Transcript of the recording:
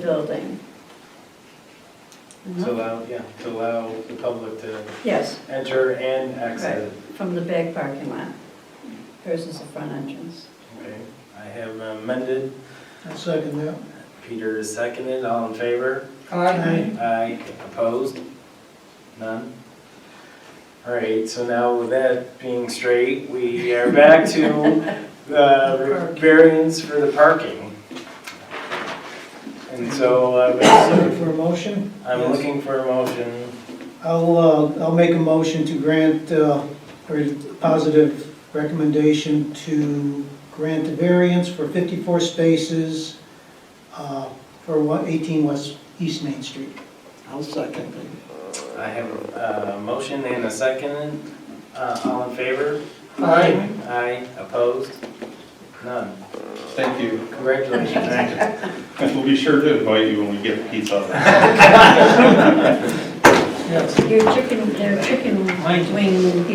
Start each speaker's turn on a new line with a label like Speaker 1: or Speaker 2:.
Speaker 1: building. Uh-huh.
Speaker 2: To allow, yeah, to allow the public to
Speaker 1: Yes,
Speaker 2: enter and exit.
Speaker 1: from the back parking lot versus the front entrance.
Speaker 2: Okay, I have amended,
Speaker 3: I'll second that.
Speaker 2: Peter is seconded, all in favor?
Speaker 3: Aye.
Speaker 2: Aye, opposed? None? All right, so now with that being straight, we are back to uh, variance for the parking. And so
Speaker 3: Second
Speaker 2: uh,
Speaker 3: for a motion.
Speaker 2: I'm looking for a motion.
Speaker 3: I'll, uh, I'll make a motion to grant, uh, or a positive recommendation to grant a variance for 54 spaces uh, for one- 18 West, East Main Street.
Speaker 4: I'll second
Speaker 2: I have a uh, motion and a second. Uh, All in favor?
Speaker 3: Aye.
Speaker 2: Aye, opposed? None.
Speaker 5: Thank you.
Speaker 2: Congratulations. Matt.
Speaker 5: We'll be sure to invite you when we get the pizza.
Speaker 3: Yes.
Speaker 1: Your chicken, their chicken
Speaker 2: Mine.
Speaker 1: wing